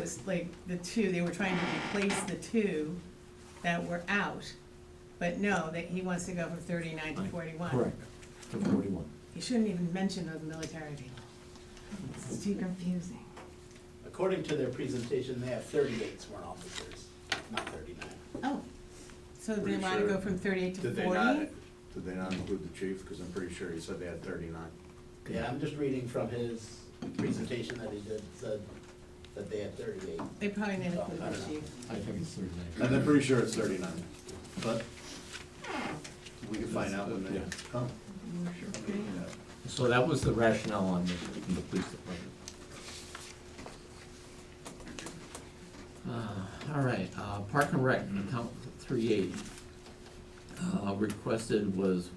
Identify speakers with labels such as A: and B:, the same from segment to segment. A: was like the two, they were trying to replace the two that were out. But no, that he wants to go from thirty-nine to forty-one.
B: Correct, from forty-one.
A: You shouldn't even mention those military people. It's too confusing.
C: According to their presentation, they have thirty-eight sworn officers, not thirty-nine.
A: Oh, so they
D: Pretty
A: wanna
D: sure.
A: go from thirty-eight to
D: Did they not,
A: forty?
D: did they not include the chief? Because I'm pretty sure he said they had thirty-nine.
C: Yeah, I'm just reading from his presentation that he did, said that they had thirty-eight.
A: They probably didn't
C: Oh,
A: include
C: I
A: the
C: don't know.
A: chief.
B: I think it's thirty-nine.
D: And I'm pretty sure it's thirty-nine, but we can find out when they
B: Yeah.
D: come.
A: Okay.
B: So that was the rationale on the, from the police department. Uh, All right, uh, Park and Rec, account three eighty. Uh, requested was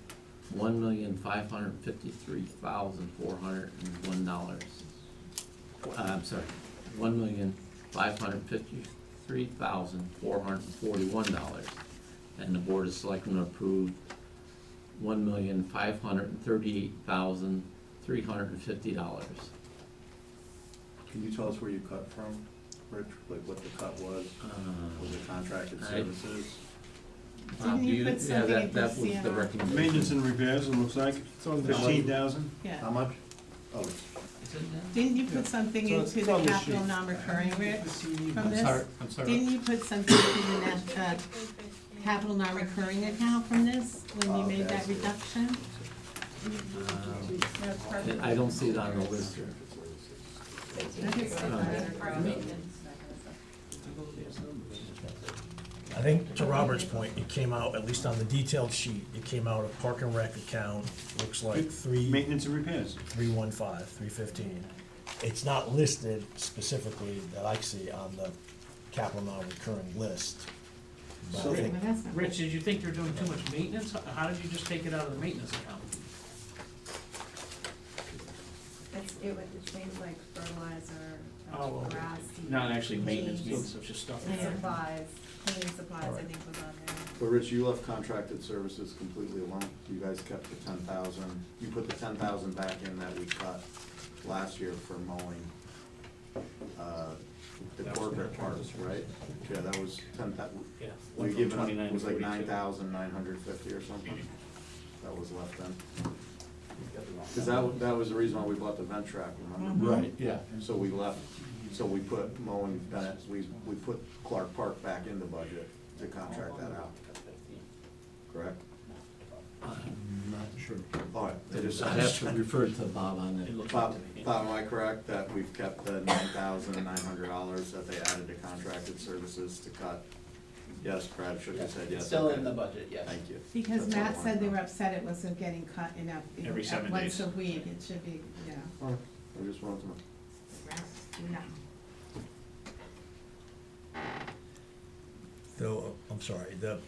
B: one million five hundred fifty-three thousand four hundred and one dollars. Uh, I'm sorry, one million five hundred fifty-three thousand four hundred and forty-one dollars. And the Board of Selectmen approved one million five hundred and thirty-eight thousand three hundred and fifty dollars.
D: Can you tell us where you cut from, Rich, like what the cut was?
B: Uh,
D: Was it contracted
B: I-
D: services?
A: Didn't you put something
B: Yeah,
A: in
B: that, that was the
A: CNR?
E: Maintenance
B: recommendation.
E: and repairs, it looks like, fifteen thousand.
D: How
A: Yeah.
D: much? Oh,
A: Didn't you put something
E: So it's
A: into the
E: on the
A: capital
E: sheet.
A: non-recurring, Rich, from
B: I'm
A: this?
B: sorry, I'm sorry.
A: Didn't you put something in the net, uh, capital non-recurring account from this, when you
D: Oh,
A: made that
D: that's it.
A: reduction?
B: Um,
A: That's perfect.
B: I I don't see it on the list here.
F: I think to Robert's point, it came out, at least on the detailed sheet, it came out of park and rec account, looks like three,
E: Maintenance and repairs.
F: three one five, three fifteen. It's not listed specifically that I see on the capital non-recurring list. But I
A: Well,
F: think
A: that's not-
G: Rich, did you think you're doing too much maintenance? How- How did you just take it out of the maintenance account?
H: It's, it would, it's things like fertilizer, uh,
G: Oh, okay.
H: grass. seed,
G: actually
H: maintenance, maintenance
G: of just stuff.
H: And supplies, cleaning supplies, I think was on there.
D: but Rich, you left contracted services completely alone. You guys kept the ten thousand, you put the ten thousand back in that we cut last year for mowing. uh, The corporate parts, right? Yeah, that was ten thousand.
G: Yeah.
D: We were given, it was like nine thousand nine hundred fifty or something that was left then. Cause that, wa- that was the reason why we bought the vent track, remember?
B: Right, yeah.
D: So we left, so we put mowing, Bennett, we, we put Clark Park back in the budget to contract that out, correct?
B: I'm not sure.
D: All right, I just,
B: I have to refer to Bob on that.
D: Bob, Bob, am I correct that we've kept the nine thousand nine hundred dollars that they added to contracted services to cut? Yes, Brad should have said yes.
C: It's still
D: okay.
C: in the budget, yes.
D: Thank you.
A: Because
D: That's all I
A: Matt said
D: wanted
A: they
D: to
A: were
D: know.
A: upset it wasn't getting cut enough,
I: Every
A: at
I: seven
A: once
I: days.
A: a week, it should be, you know.
D: All right, I just wanted to know.
F: Though, I'm sorry, the,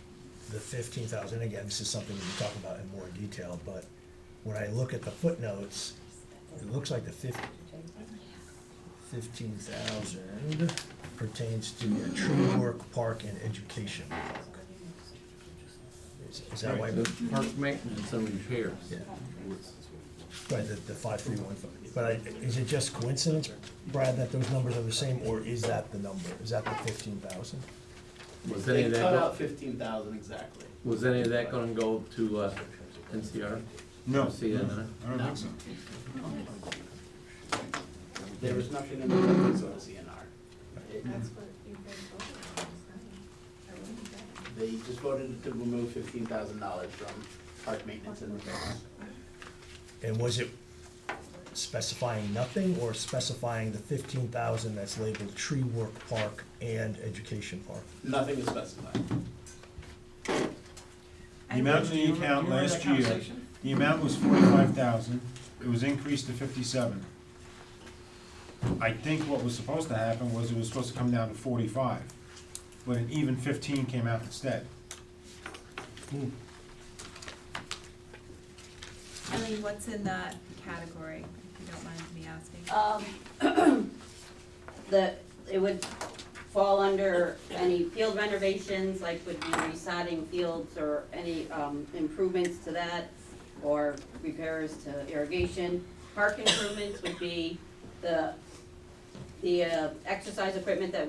F: the fifteen thousand, again, this is something we can talk about in more detail, but when I look at the footnotes, it looks like the fif- fifteen thousand pertains to the True York Park and Education Park. Is- Is that why,
B: The Park maintenance and repairs.
F: yeah, right, the, the five three one five, but I, is it just coincidence, Brad, that those numbers are the same, or is that the number, is that the fifteen thousand?
B: Was any
C: They
B: of that,
C: cut
B: go-
C: out fifteen thousand exactly.
B: was any of that gonna go to, uh, NCR?
E: No,
B: CNR?
E: I don't think so.
C: There was nothing in the budget for the CNR. It- They just voted to remove fifteen thousand dollars from park maintenance and repairs.
F: And was it specifying nothing or specifying the fifteen thousand that's labeled tree work park and education park?
C: Nothing is specified.
E: The amount in the account last year, the amount was forty-five thousand, it was increased to fifty-seven. I think what was supposed to happen was it was supposed to come down to forty-five, but an even fifteen came out instead.
H: Eileen, what's in that category, if you don't mind me asking?
I: Um, The, it would fall under any field renovations, like would be resodding fields or any um, improvements to that, or repairs to irrigation. Park improvements would be the, the uh, exercise equipment that